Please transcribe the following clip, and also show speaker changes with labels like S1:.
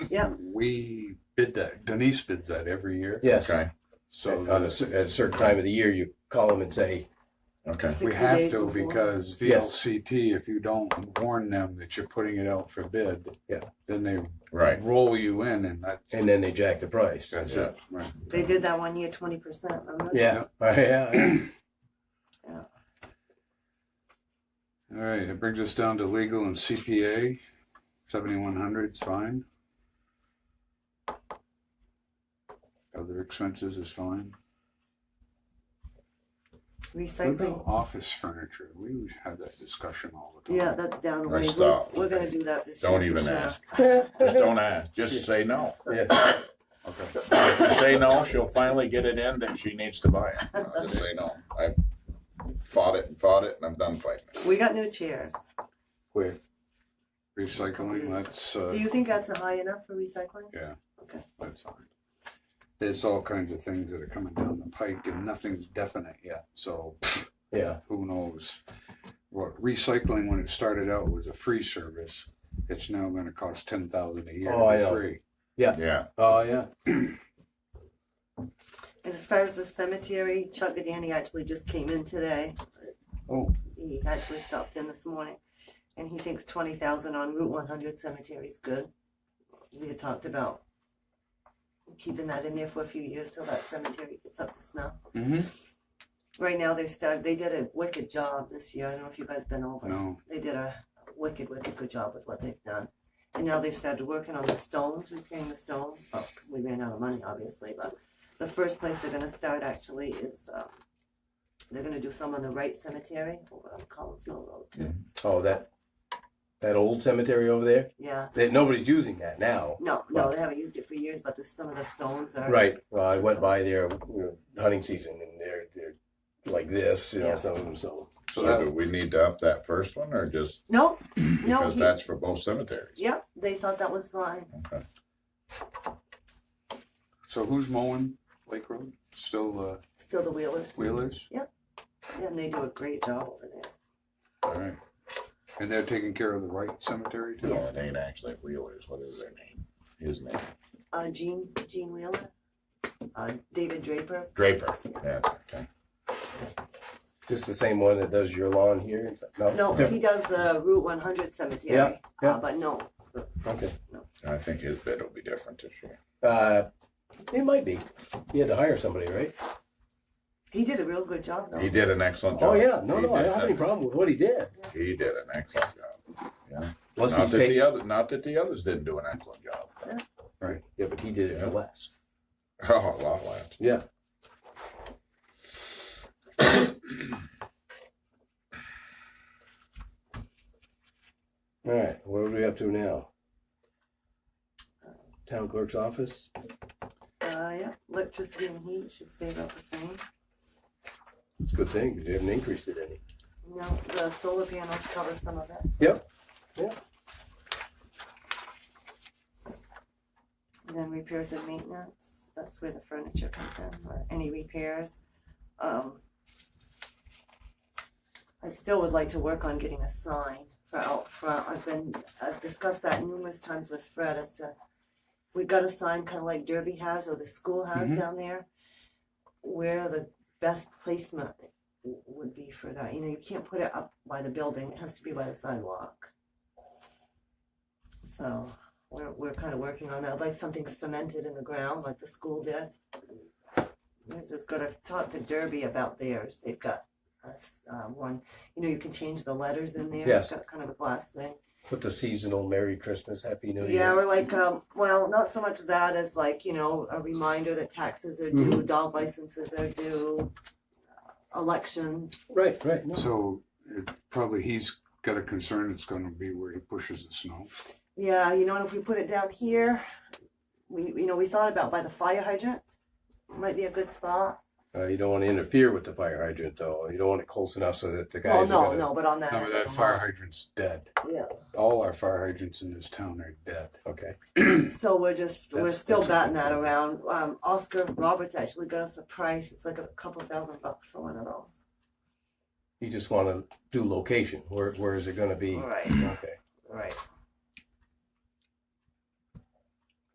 S1: Yeah.
S2: We bid that, Denise bids that every year,
S3: Yes.
S4: Okay,
S2: so
S3: At a
S2: the-
S3: cer- at a certain time of the year, you call them and say,
S4: okay.
S2: we
S1: 60
S2: have
S1: days
S2: to
S1: before.
S2: because
S3: Yes.
S2: VLCT, if you don't warn them that you're putting it out for bid,
S3: Yeah.
S2: then they
S4: Right.
S2: roll you in and that,
S3: and then they jack the price.
S2: that's
S4: Yeah.
S2: it. Right.
S1: They did that one year, twenty percent, remember?
S3: Yeah, Oh, yeah,
S2: All right, it brings us down to legal and CPA, seventy-one hundred is fine. Other expenses is fine. What
S1: Recycling,
S2: about office furniture? We have that discussion all the time.
S1: yeah, that's down the
S4: I
S1: way. We're-
S4: stopped.
S1: We're gonna do that this year.
S4: Don't
S1: for
S4: even
S1: sure.
S4: ask. Just don't ask, just say no.
S3: yeah.
S2: Okay.
S4: If you say no, she'll finally get it in that she needs to buy it. I'll Just say no. I fought it and fought it and I'm done fighting.
S1: We got new chairs.
S3: Where,
S2: Recycling, that's,
S1: Do
S2: uh,
S1: you think that's high enough for recycling?
S2: that's fine. There's all kinds of things that are coming down the pike and nothing's definite yet, so
S3: yeah,
S2: who knows? What recycling, when it started out, was a free service. It's now gonna cost ten thousand a year
S3: Oh, I
S2: to be
S3: know.
S2: free.
S4: Yeah,
S3: oh, yeah,
S1: And as far as the cemetery, Chuck Danny actually just came in today.
S2: Oh,
S1: He actually stopped in this morning. And he thinks twenty thousand on Route one hundred cemetery is good. We had talked about keeping that in there for a few years till that cemetery gets up to snuff.
S2: mm-hmm.
S1: Right now, they started, they did a wicked job this year. I don't know if you guys been over.
S2: no,
S1: They did a wicked, wicked good job with what they've done. And now they've started working on the stones, repairing the stones. Well, we ran out of money, obviously, but the first place they're gonna start actually is, um, they're gonna do some on the Wright Cemetery over on Collins Mill Road too.
S3: oh, that, that old cemetery over there,
S1: Yeah.
S3: that, nobody's using that now.
S1: No, no, they haven't used it for years, but the, some of the stones are.
S3: Right, well, I went by there, you know, hunting season, and they're, they're like this, you know,
S1: Yeah.
S3: some of them, so.
S2: so
S4: so do
S2: that,
S4: we need to up that first one or just
S1: No, no,
S4: because
S1: he-
S4: that's for both cemeteries?
S1: yep, they thought that was fine.
S4: Okay.
S2: so who's mowing Lake Road? Still, uh,
S1: Still the Wheelers,
S2: Wheelers?
S1: Yeah, and they do a great job over there.
S2: All right. And they're taking care of the Wright Cemetery too?
S4: No, it ain't actually Wheelers. What is their name? His name?
S1: Uh, Gene, Gene Wheeler, uh, David Draper,
S4: Draper. Yeah, okay.
S3: Just the same one that does your lawn here?
S1: No, he does the Route one hundred cemetery.
S3: Yeah, yeah.
S1: Uh, but no,
S3: Okay.
S4: I think his bid will be different this year.
S3: Uh, it might be. You had to hire somebody, right?
S1: he did a real good job though.
S4: He did an excellent job.
S3: Oh yeah, no,
S4: He
S3: no, I
S4: did
S3: don't have any
S4: an-
S3: problem with what he did.
S4: He did an excellent job.
S3: Unless
S4: Not
S3: he's
S4: that
S3: taking,
S4: the other, not that the others didn't do an excellent job.
S3: right? Yeah, but he did it for less.
S4: Oh, a lot less.
S3: Yeah. All right, what are we up to now? Town clerk's office.
S1: Uh, yeah, electricity and heat should stay about the same.
S3: It's a good thing because you haven't increased it any.
S1: No, the solar panels cover some of that.
S3: Yep, yep.
S1: And then repairs and maintenance, that's where the furniture comes in, or any repairs. Um, I still would like to work on getting a sign for out front. I've been, I've discussed that numerous times with Fred as to, we've got a sign kind of like Derby has or the school has
S2: Mhm.
S1: down there. Where the best placement w- would be for that. You know, you can't put it up by the building, it has to be by the sidewalk. So we're, we're kind of working on that, I'd like something cemented in the ground like the school did. This is good, I've talked to Derby about theirs, they've got a s- uh, one, you know, you can change the letters in there.
S3: Yes.
S1: It's got Kind of a glass thing.
S3: Put the seasonal Merry Christmas, Happy New
S1: Yeah,
S3: Year.
S1: or like, um, well, not so much that as like, you know, a reminder that taxes are due, dog licenses are due, uh, elections.
S3: Right, right. No.
S2: So it, probably he's got a concern it's gonna be where he pushes the snow.
S1: Yeah, you know, and if we put it down here, we, you know, we thought about by the fire hydrant, might be a good spot.
S3: Uh, you don't want to interfere with the fire hydrant, though. You don't want it close enough so that the
S1: Well,
S3: guys. are
S1: Oh, no,
S3: gonna-
S1: no, but on that.
S2: Remember
S1: end of
S2: that
S1: the
S2: fire
S1: lot.
S2: hydrant's dead.
S1: Yeah.
S2: All our fire hydrants in this town are dead.
S3: Okay.
S1: So we're just, we're
S3: That's-
S1: still
S3: that's a
S1: batting
S3: good
S1: that
S3: point.
S1: around. Um, Oscar Roberts actually got us a price, it's like a couple thousand bucks for one of those. Oh,
S3: You just want to do location. Where Where is it going to be?
S1: Right,
S3: Okay.
S1: right.